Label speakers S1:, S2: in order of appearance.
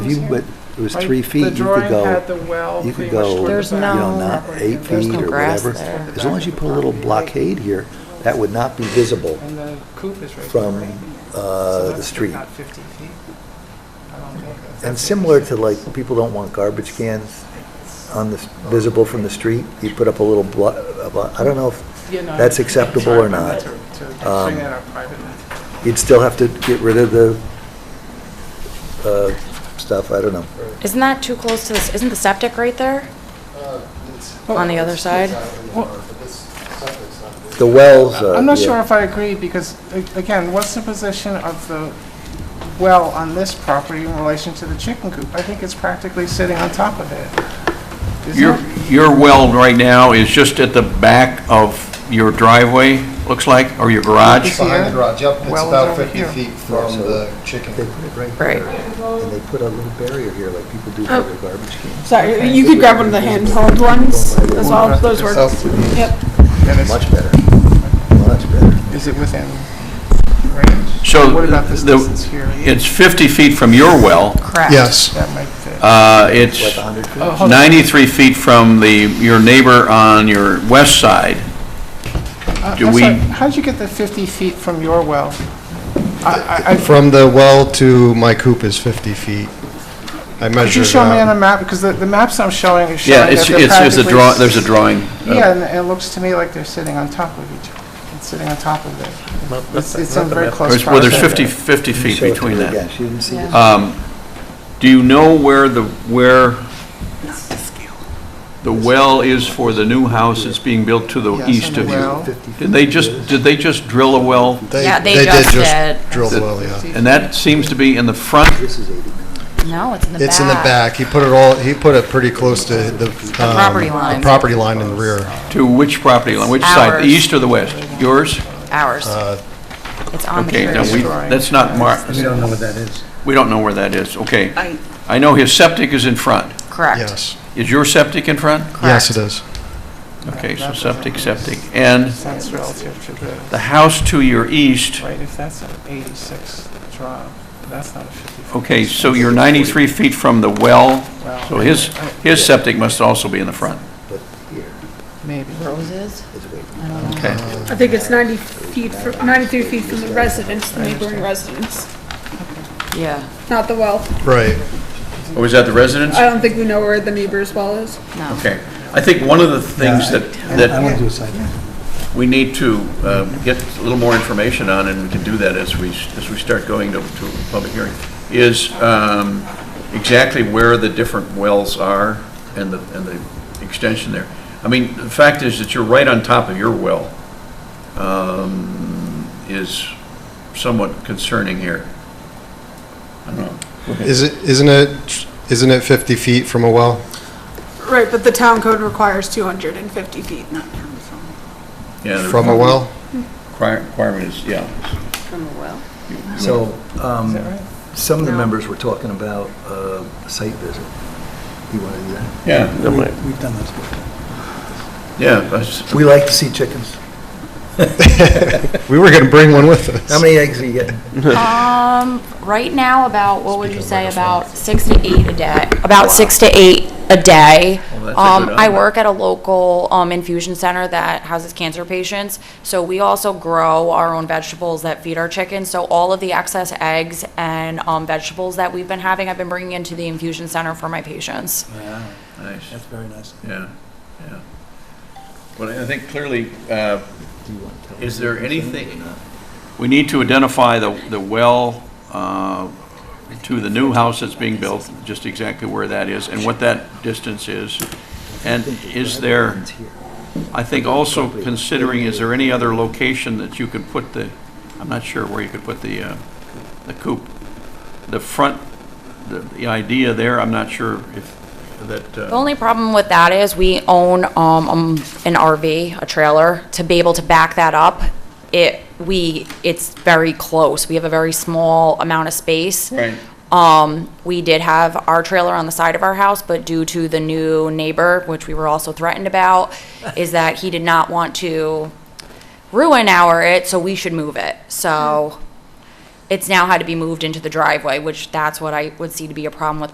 S1: If you went, it was
S2: Right,
S1: three feet, you
S2: The
S1: could
S2: drawing had
S1: go,
S2: the well
S1: you
S2: pretty
S1: could
S2: much
S1: go,
S2: toward the
S1: you
S3: There's
S1: know,
S2: back.
S3: no-
S1: not eight
S3: there's
S1: feet
S3: no
S1: or
S3: grass
S1: whatever.
S3: there.
S1: As long as you put a little blockade here, that would not be visible
S2: And the coop is right there,
S1: from
S2: right? So
S1: uh, the
S2: that's
S1: street.
S2: Not 50 feet. I don't think that's-
S1: And similar to like, people don't want garbage cans on the, visible from the street. You put up a little blo, a blo- I don't know if
S2: Yeah, no,
S1: that's
S2: I'm
S1: acceptable
S2: sorry,
S1: or
S2: I meant
S1: not.
S2: To to
S1: Um,
S2: bring that up privately.
S1: You'd still have to get rid of the uh, stuff, I don't know.
S3: Isn't that too close to this, isn't the septic right there? On the other side?
S1: The wells, uh,
S2: I'm not
S1: yeah.
S2: sure if I agree, because, a- again, what's the position of the well on this property in relation to the chicken coop? I think it's practically sitting on top of it. Is
S4: Your,
S2: it?
S4: your well right now is just at the back of your driveway, looks like, or your garage?
S2: It's here.
S5: Behind the garage, yep, it's
S2: Well,
S5: about
S2: it's over
S5: 50
S2: here.
S5: feet from
S1: So-
S5: the chicken
S1: They put it right
S3: Right.
S1: there, and they put a little barrier here, like people do
S3: Oh.
S1: for their garbage cans.
S6: Sorry, you could grab one of the handheld ones as well, those work.
S5: itself.
S6: Yep.
S2: And it's-
S1: Much better, much better.
S2: Is it within range?
S4: So
S2: What about this
S4: the-
S2: distance here?
S4: It's 50 feet from your well.
S3: Correct.
S2: That might fit.
S4: Uh,
S1: Like
S4: It's
S1: a hundred feet?
S2: Oh, hold on.
S4: 93 feet from the, your neighbor on your west side.
S2: Uh,
S4: do
S2: I'm
S4: we-
S2: sorry, How'd you get the 50 feet from your well? I- I- I-
S5: From the well to my coop is 50 feet. I measured it out.
S2: Could you show
S5: uh,
S2: me on a map, because the the maps I'm showing is showing
S4: Yeah,
S2: that
S4: it's,
S2: they're
S4: it's, there's a
S2: practically
S4: draw,
S2: s-
S4: there's a drawing.
S2: Yeah, and it looks to me like they're sitting on top of each, it's sitting on top of it. It's it's in very close
S4: There's-
S2: proximity.
S4: Well, there's 50, 50 feet
S1: Show it to
S4: between
S1: her
S4: that.
S1: Again, she didn't see it.
S4: Um, Do you know where the, where the well is for the new house that's being built to the
S2: Yes, and
S4: east
S2: the
S4: of
S2: well.
S4: you?
S1: Fifty feet
S4: Uh, Did they
S1: is.
S4: just, did they just drill a well?
S5: They-
S3: Yeah, they just
S5: did
S3: did.
S5: just drill the well, yeah.
S4: And that seems to be in the front,
S1: This is eighty-nine.
S3: No, it's in the back.
S5: It's in the back, he put it all, he put it pretty close to the... um,
S3: property line.
S5: The property line in the rear.
S4: to which property line, which side,
S3: Ours.
S4: the east or the west? Yours?
S3: Ours.
S5: Uh,
S3: It's on the
S4: Okay,
S3: church.
S4: now we, that's not marked,
S1: We don't know what that is.
S4: we don't know where that is, okay.
S7: I-
S4: I know his septic is in front.
S3: Correct.
S5: Yes,
S4: Is your septic in front?
S5: yes it is.
S4: Okay, so septic, septic. And
S2: That's relative to the,
S4: the house to your east,
S2: right, if that's an 86 draw, that's not a 50 feet.
S4: okay, so you're 93 feet from the well, so his, his septic must also be in the front.
S1: But here,
S2: Maybe.
S3: Roses?
S1: it's way.
S4: Okay,
S6: I think it's 90 feet, fr- 93 feet from the residence, the neighboring residence,
S3: Yeah,
S6: not the well.
S5: Right,
S4: or Oh, is that the residence?
S3: Uh,
S6: I don't think we know where the neighbor's well is.
S3: no.
S4: Okay, I think one of the things that,
S1: I want
S4: that
S1: to do a side map.
S4: we need to um, get a little more information on, and we can do that as we, as we start going to, to a public hearing, is um, exactly where the different wells are and the, and the extension there. I mean, the fact is that you're right on top of your well um, is somewhat concerning here. I don't know.
S5: is it, isn't it, isn't it 50 feet from a well?
S6: Right, but the town code requires 250 feet.
S4: Yeah, the
S5: From a well?
S4: require- Requirement is, yeah.
S7: From a well.
S1: So, um,
S2: Is that right?
S1: some of the
S7: No.
S1: members were talking about uh, a site visit. You want to do that?
S4: Yeah,
S1: We- We've done this before.
S4: yeah, that's-
S1: We like to see chickens.
S5: We were going to bring one with us.
S1: How many eggs are you getting?
S3: Um, right now, about, what would you say, about six to eight a day, about six to eight a day.
S4: Well, that's a
S3: Um,
S4: good
S3: I
S4: amount.
S3: work at a local, um, infusion center that houses cancer patients, so we also grow our own vegetables that feed our chickens, so all of the excess eggs and, um, vegetables that we've been having, I've been bringing into the infusion center for my patients.
S4: nice.
S1: very nice.
S4: Yeah, yeah. But I think clearly, uh, is there anything, we need to identify the, the well uh, to the new house that's being built, just exactly where that is and what that distance is. And is there, I think also considering, is there any other location that you could put the, I'm not sure where you could put the, uh, the coop. The front, the, the idea there, I'm not sure if that. uh,
S3: The only problem with that is we own um, um, an RV, a trailer. To be able to back that up, it, we, it's very close. We have a very small amount of space.
S4: Right.
S3: Um, we did have our trailer on the side of our house, but due to the new neighbor, which we were also threatened about, is that he did not want to ruin our it, so we should move it. So it's now had to be moved into the driveway, which that's what I would see to be a problem with